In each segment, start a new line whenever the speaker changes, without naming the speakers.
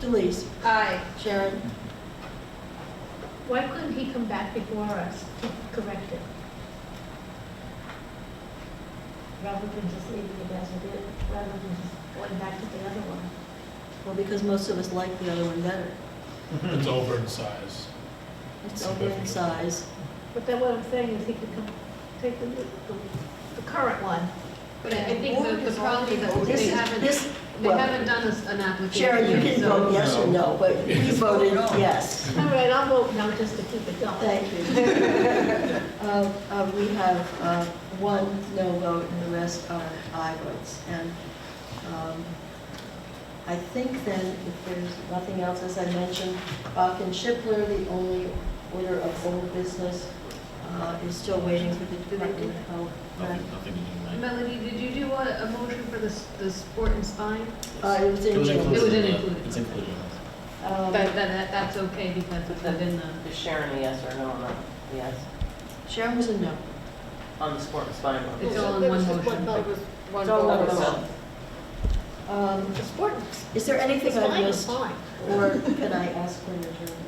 Delise,
Aye.
Sharon,
Why couldn't he come back before us to correct it? Rather than just leaving it as it is, rather than just going back to the other one.
well, because most of us like the other one better.
It's over in size.
It's over in size.
But then what I'm saying is he could come, take the, the, the current one.
But I I think the- the problem is that
This
they
is,
haven't,
this,
they
well-
haven't done us an
Sharon, you
application,
can
so.
vote yes or no, but we voted yes.
All right, I'll vote no just to keep it going.
Thank you. Uh, uh, We have uh, one no vote and the rest are aye votes. And um, I think then, if there's nothing else, as I mentioned, Bach and Shipler, the only order of old business, uh, is still waiting for the Department of Health.
Nothing, nothing to do tonight.
Melody, did you do a, a motion for the, s- the sport and spine?
Uh, It was
It
in
was
June.
included. in the-
It was in included.
It's included. in this.
Um,
But that, that, that's okay because it's within the,
Is Sharon a yes or no on that? Yes,
Sharon was a no.
on the sport and spine one.
It's all in
There
one
was just
motion.
vote. was-
one
It's all
vote.
over
vote.
Um,
The sport,
Is there
the
anything I
spine was
missed,
fine.
or can I ask for an adjournment?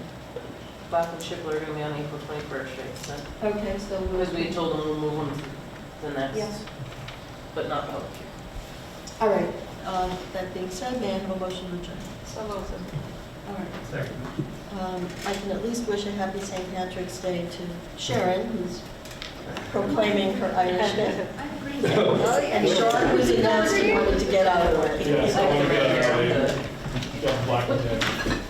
Bach and Chipler are gonna be on April twenty-first, right? So,
Okay, so we'll...
because we told them we'll move them to the
Yes.
next, but not public.
All right, uh, that being said, may I have a motion to adjourn?
So voted.
All right. Um, I can at least wish a happy St. Patrick's Day to Sharon, who's proclaiming her Irishness. And Sean, who's announced he wanted to get out of work.
Yeah, so I want to
Right
get
here
out
on
of
the-
here. Got black and tan.